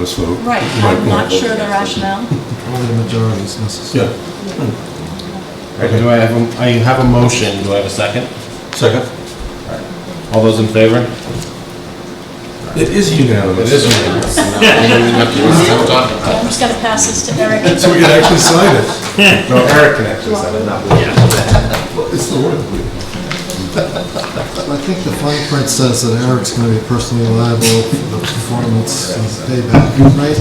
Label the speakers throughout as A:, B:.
A: this vote.
B: Right, I'm
A: Right,
B: not
A: yeah.
B: sure the rationale.
C: Only the majority is necessary.
A: Yeah, Hmm.
D: Alright, do I have, a- I have a motion, do I have a second?
A: second.
D: All those in favor?
A: It is unanimous.
D: unanimous.
B: I'm just gonna pass this to Eric.
A: So we can actually sign it.
D: No, Eric can actually sign it, not me.
A: It's the word.
C: I think the fine print says that Eric's going to be personally liable for the performance and payback, right?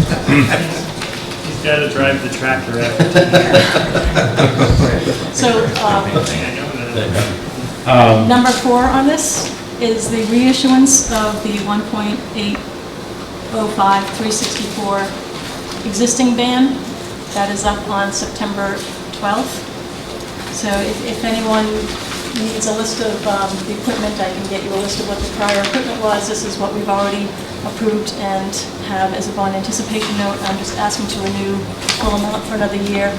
E: He's got to drive the tractor after today,
B: So, uh,
E: I know that.
D: Um,
B: number four on this is the reissuance of the 1.805364 existing ban. That is up on September 12th. So if if anyone needs a list of um, the equipment, I can get you a list of what the prior equipment was. This is what we've already approved and have as a bond anticipation note. I'm just asking to renew full amount for another year.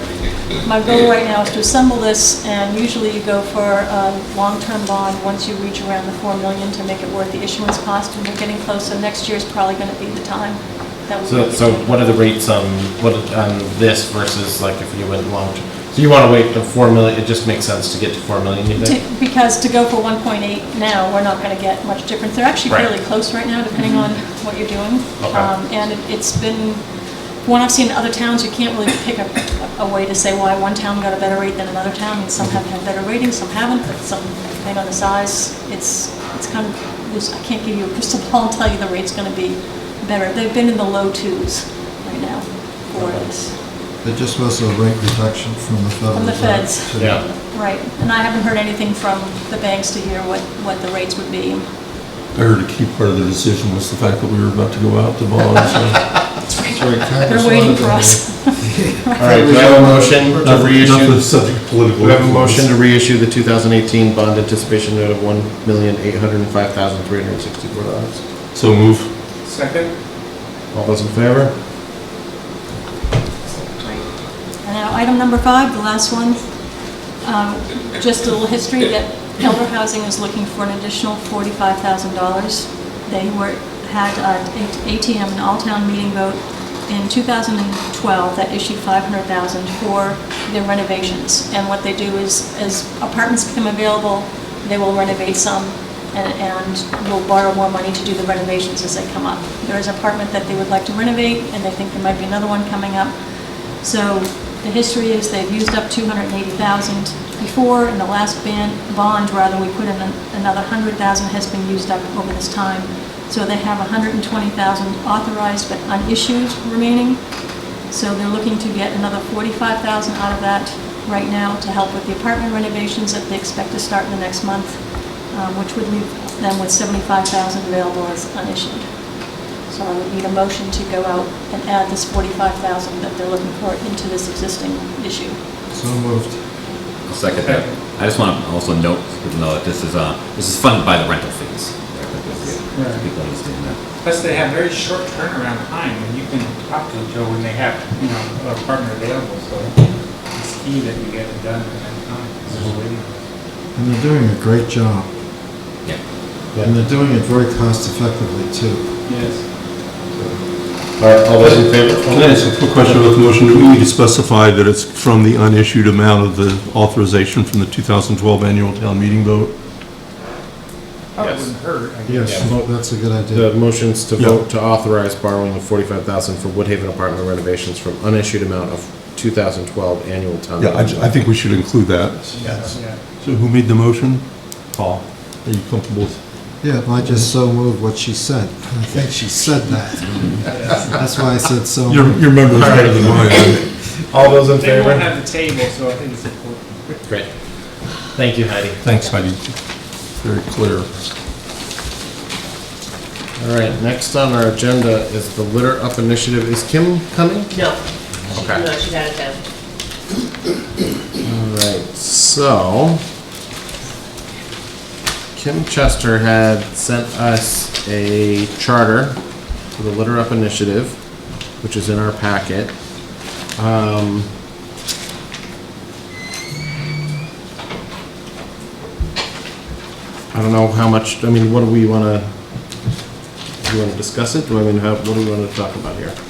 B: My goal right now is to assemble this, and usually you go for a long-term bond once you reach around the 4 million to make it worth the issuance cost, and we're getting close, so next year's probably going to be the time that we...
D: So, so what are the rates on, what, on this versus like if you went long, so you wanna wait to four million, it just makes sense to get to four million, you think?
B: To- Because to go for 1.8 now, we're not going to get much difference. They're actually
D: Right. Mm-hmm.
B: fairly close right now, depending on what you're doing.
D: Okay.
B: Um, And it- it's been, from what I've seen in other towns, you can't really pick a, a way to say why one town got a better rate than another town, and some have had better ratings, some haven't, but some, depending on the size, it's, it's kind of, loose. I can't give you a crystal ball and tell you the rate's going to be better. They've been in the low twos right now for this.
C: It just was a rate reduction from the federal.
B: From the
C: government
B: feds.
C: to-
D: Yeah.
B: Right, and I haven't heard anything from the banks to hear what, what the rates would be.
A: I heard a key part of the decision was the fact that we were about to go out to bond, so.
C: Sorry, Congress
B: They're waiting
C: wanted
B: for
C: to-
B: us.
D: Alright, do I have a motion to
A: Enough of the
D: reissue?
A: subject of political.
D: Do I have a motion to reissue the two thousand eighteen bond anticipation note of one million eight hundred and five thousand three hundred and sixty-four dollars?
A: So move.
D: All those in favor?
B: And Now, item number five, the last one, um, just a little history, that Elder Housing is looking for an additional forty-five thousand dollars. They were, had an ATM, an all-town meeting vote in two thousand and twelve that issued five hundred thousand for their renovations. And what they do is, as apartments become available, they will renovate some, and- and will borrow more money to do the renovations as they come up. There is an apartment that they would like to renovate, and they think there might be another one coming up. So the history is they've used up 280,000 before, in the last ban, bond, rather, we put in an- another 100,000 has been used up over this time. So they have 120,000 authorized but unissued remaining. So they're looking to get another 45,000 out of that right now to help with the apartment renovations that they expect to start in the next month, um, which would leave them with 75,000 available as unissued. So I would need a motion to go out and add this 45,000 that they're looking for into this existing issue.
C: So moved.
F: I'll second that. I just want to also note, even though that this is, uh, this is funded by the rental fees.
E: Right.
F: People understand that.
E: Plus, they have very short turnaround time, and you can talk to Joe when they have, you know, a partner available, so it's key that you get it done in that time. It's just waiting.
F: Mm-hmm.
C: And they're doing a great job.
F: Yeah.
C: And they're doing it very cost effectively too.
E: Yes.
D: Alright, all those in favor?
A: Can I ask a quick question about the motion? Do we need to specify that it's from the unissued amount of the authorization from the 2012 annual town meeting vote?
E: Probably
D: Yes.
E: wouldn't hurt. I guess.
C: Yes,
D: Yeah.
C: well, that's a good
D: The
C: idea.
D: motions to vote to authorize borrowing of forty-five thousand for Woodhaven apartment renovations from unissued amount of two thousand twelve annual town.
A: Yeah, I ju- I think we should include that.
E: Yeah.
A: So who made the motion? Paul. Are you comfortable with?
C: Yeah, I just so moved what she said. I think she said that. That's why I said so.
A: Your
C: moved.
A: your memory's better than mine.
D: All those in
E: They won't
D: favor?
E: have the table, so I think it's important.
D: Great. Thank you, Heidi.
A: Thanks, Heidi. Very clear.
D: All right, next on our agenda is the litter up initiative. Is Kim coming?
G: No.
D: Okay.
G: No, she's out of town.
D: All right, so Kim Chester had sent us a charter for the litter up initiative, which is in our packet. Um, I don't know how much, I mean, what do we want to, do you want to discuss it? Do I mean, how, what do we want to talk about here?